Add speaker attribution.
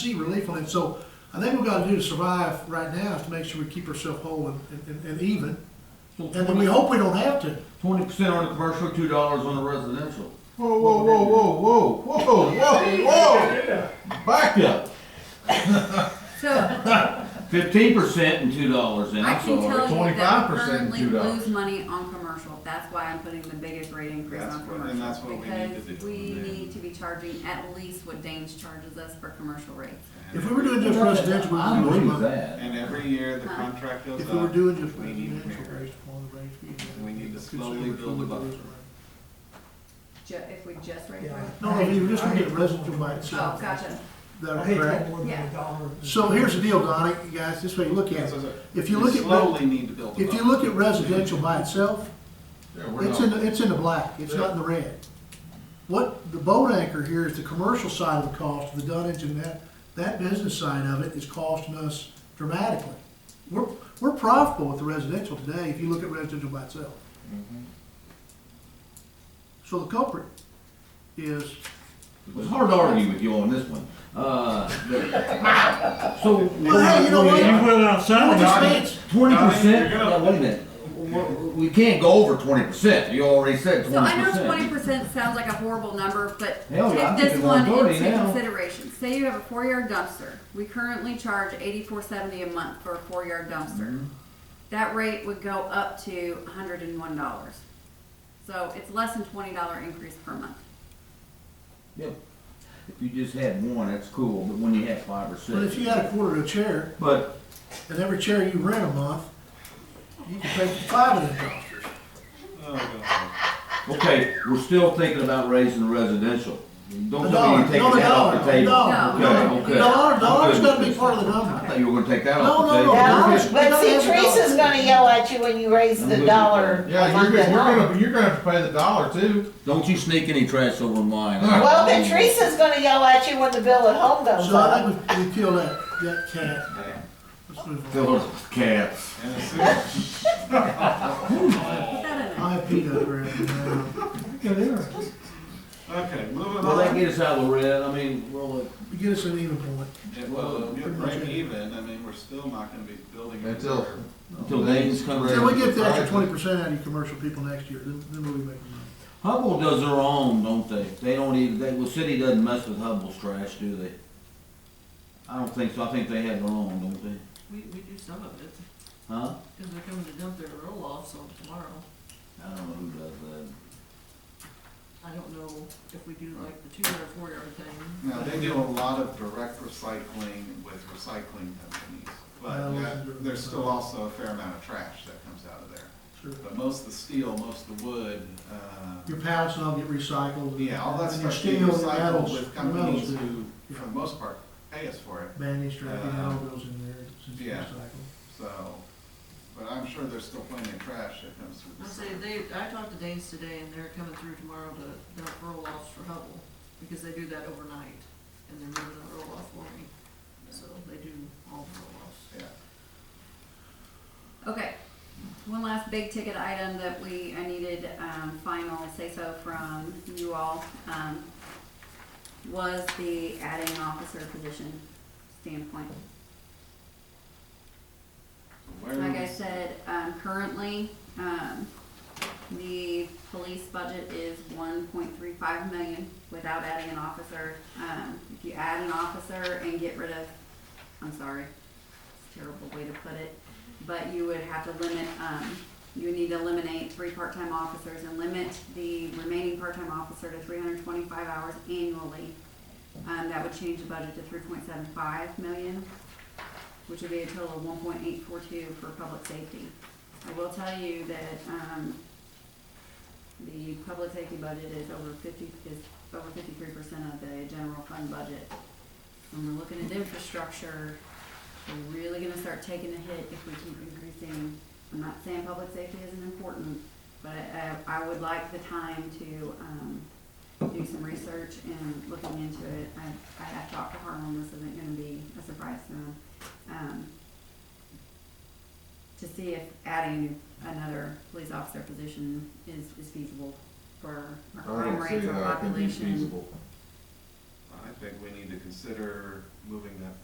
Speaker 1: see relief on it. So I think what we gotta do to survive right now is to make sure we keep ourselves whole and, and, and even. And then we hope we don't have to.
Speaker 2: Twenty percent on the commercial, two dollars on the residential.
Speaker 3: Whoa, whoa, whoa, whoa, whoa, whoa, whoa, whoa! Back up.
Speaker 4: So
Speaker 2: Fifteen percent and two dollars in,
Speaker 4: I
Speaker 2: I'm
Speaker 4: can tell
Speaker 2: sorry.
Speaker 4: you that we
Speaker 3: 25%
Speaker 4: currently
Speaker 3: chewed up.
Speaker 4: lose money on commercial. That's why I'm putting the biggest rate increase
Speaker 5: That's
Speaker 4: on
Speaker 5: what- and
Speaker 4: commercial.
Speaker 5: that's what we need to
Speaker 4: Because
Speaker 5: do.
Speaker 4: we need to be charging at least what Danes charges us for commercial rates.
Speaker 1: If we were doing just residential,
Speaker 2: I
Speaker 1: we'd lose
Speaker 2: believe
Speaker 1: money.
Speaker 2: that.
Speaker 5: And every year, the contract goes up.
Speaker 1: If we were doing just
Speaker 5: We need
Speaker 1: residential
Speaker 5: merit.
Speaker 1: based upon the range. we-
Speaker 5: We need to
Speaker 1: consider
Speaker 5: slowly
Speaker 1: which one
Speaker 5: build a
Speaker 1: we
Speaker 5: buffer.
Speaker 1: lose.
Speaker 4: Ju- if we just raise rates.
Speaker 1: No, no, you just gonna get residential by
Speaker 4: Oh,
Speaker 1: itself.
Speaker 4: gotcha.
Speaker 1: That's
Speaker 6: I hate
Speaker 1: correct.
Speaker 6: that more than
Speaker 4: Yeah.
Speaker 6: a dollar.
Speaker 1: So here's the deal, Donnie, you guys, this way you look
Speaker 5: Yeah,
Speaker 1: at
Speaker 5: so
Speaker 1: it.
Speaker 5: it's-
Speaker 1: If you
Speaker 5: we
Speaker 1: look at, re-
Speaker 5: Slowly need to build.
Speaker 1: if you look at residential by itself,
Speaker 2: Yeah, we're
Speaker 1: It's in,
Speaker 2: not-
Speaker 1: the it's in the black, it's not in the red. What, the boat anchor here is the commercial side of the cost, the dunnage and that, that business side of it is costing us dramatically. We're, we're profitable with the residential today, if you look at residential by itself.
Speaker 2: Mm-hmm.
Speaker 1: So the culprit is,
Speaker 2: It's hard to argue with you on this one. Uh, the- So.
Speaker 1: well, hey, you know what?
Speaker 6: put it on
Speaker 1: Well,
Speaker 6: Sunday.
Speaker 1: just
Speaker 2: Donnie,
Speaker 1: wait.
Speaker 2: 20%? Uh, Wait a minute. We- We can't go over twenty percent. You already said
Speaker 4: So
Speaker 2: twenty
Speaker 4: I know
Speaker 2: percent.
Speaker 4: twenty percent sounds like a horrible number, but
Speaker 2: Hell, yeah, I
Speaker 4: take
Speaker 2: think
Speaker 4: this
Speaker 2: it's
Speaker 4: one
Speaker 2: 130
Speaker 4: into
Speaker 2: now.
Speaker 4: consideration. Say you have a four-yard dumpster. We currently charge eighty-four seventy a month for a four-yard dumpster. That rate would go up to hundred and one dollars. So it's less than twenty dollar increase per month.
Speaker 2: Yep. If you just had one, that's cool, but when you have five or
Speaker 1: but if
Speaker 2: six.
Speaker 1: you had a quarter of a chair,
Speaker 2: But
Speaker 1: and every chair you rent a month, you can pay for five of them dumpsters.
Speaker 5: Oh, God.
Speaker 2: Okay, we're still thinking about raising the residential.
Speaker 1: A
Speaker 2: Don't tell me
Speaker 1: dollar,
Speaker 2: you're
Speaker 1: no,
Speaker 2: taking
Speaker 1: a
Speaker 2: that
Speaker 1: dollar,
Speaker 2: off the
Speaker 1: a
Speaker 2: table.
Speaker 1: dollar,
Speaker 2: Okay,
Speaker 1: no,
Speaker 2: okay.
Speaker 1: a dollar, dollar's
Speaker 2: I'm good
Speaker 1: gotta
Speaker 2: with
Speaker 1: be
Speaker 2: this.
Speaker 1: part of the number.
Speaker 2: I thought you were gonna take that
Speaker 1: No,
Speaker 2: off the
Speaker 1: no,
Speaker 2: table.
Speaker 1: no.
Speaker 7: Dollars,
Speaker 1: Okay.
Speaker 7: but see, Teresa's gonna yell at you when you raise the dollar a
Speaker 3: Yeah, you're,
Speaker 7: month
Speaker 3: gonna-
Speaker 7: and
Speaker 3: we're
Speaker 7: all.
Speaker 3: gonna, you're gonna have to pay the dollar too.
Speaker 2: Don't you sneak any trash over mine.
Speaker 7: Well, but Teresa's gonna yell at you when the bill at home goes
Speaker 1: So I
Speaker 7: up.
Speaker 1: think we, we kill that, that cat.
Speaker 5: Yeah.
Speaker 1: Let's move on.
Speaker 2: Fill it with cats.
Speaker 5: And as soon as
Speaker 4: Put that in there.
Speaker 1: I have peed over it.
Speaker 5: Okay, moving
Speaker 2: Will that
Speaker 5: on.
Speaker 2: get us out of the red? I mean, will it?
Speaker 1: Get us an even point.
Speaker 5: It will,
Speaker 1: Pretty much
Speaker 5: break
Speaker 1: it.
Speaker 5: even, I mean, we're still not gonna be building.
Speaker 3: Until-
Speaker 5: anywhere.
Speaker 2: Until Danes come
Speaker 1: So we
Speaker 2: around.
Speaker 1: get the extra twenty percent out of you commercial people next year, then, then we'll be making money.
Speaker 2: Hubble does their own, don't they? They don't even, they, well, city doesn't mess with Hubble's trash, do they? I don't think so. I think they have their own, don't they?
Speaker 8: We, we do some of it,
Speaker 2: Huh?
Speaker 8: because they're coming to dump their roll offs on tomorrow.
Speaker 2: I don't know who does that.
Speaker 8: I don't know if we do like the two or four yard thing.
Speaker 5: Now, they do a lot of direct recycling with recycling companies, but
Speaker 1: Well,
Speaker 5: yeah,
Speaker 1: they're-
Speaker 5: there's still also a fair amount of trash that comes out of there.
Speaker 1: Sure.
Speaker 5: But most of the steel, most of the wood, uh,
Speaker 1: Your pallets and all get recycled.
Speaker 5: yeah, all that
Speaker 1: And your
Speaker 5: stuff
Speaker 1: steel
Speaker 5: gets
Speaker 1: and
Speaker 5: recycled
Speaker 1: metals,
Speaker 5: with
Speaker 1: metals,
Speaker 5: companies
Speaker 1: that-
Speaker 5: who, for the most part, pay us for it.
Speaker 1: bandage, wrapping,
Speaker 5: Uh,
Speaker 1: all goes in there, since it's
Speaker 5: yeah.
Speaker 1: recycled.
Speaker 5: So, but I'm sure there's still plenty of trash that comes through
Speaker 8: I
Speaker 5: the
Speaker 8: say,
Speaker 5: city.
Speaker 8: they, I talked to Danes today, and they're coming through tomorrow to dump roll offs for Hubble, because they do that overnight, and they're moving the roll off for me. So they do all the roll offs.
Speaker 5: Yeah.
Speaker 4: Okay, one last big ticket item that we, I needed, um, final say-so from you all, um, was the adding officer position standpoint.
Speaker 5: Where
Speaker 4: Like I
Speaker 5: was-
Speaker 4: said, um, currently, um, the police budget is one point three five million without adding an officer. Um, if you add an officer and get rid of, I'm sorry, it's a terrible way to put it, but you would have to limit, um, you would need to eliminate three part-time officers and limit the remaining part-time officer to three hundred twenty-five hours annually. Um, that would change the budget to three point seven five million which would be a total of one point eight four two for public safety. I will tell you that, um, the public safety budget is over fifty, is over fifty-three percent of the general fund budget. When we're looking at infrastructure, we're really gonna start taking a hit if we keep increasing. I'm not saying public safety isn't important, but I, I would like the time to, um, do some research and looking into it. I, I have talked to Harlan, this isn't gonna be a surprise to him um, to see if adding another police officer position is,
Speaker 3: uh,
Speaker 4: is feasible for our crime rate, for our population.
Speaker 5: I think we need to consider moving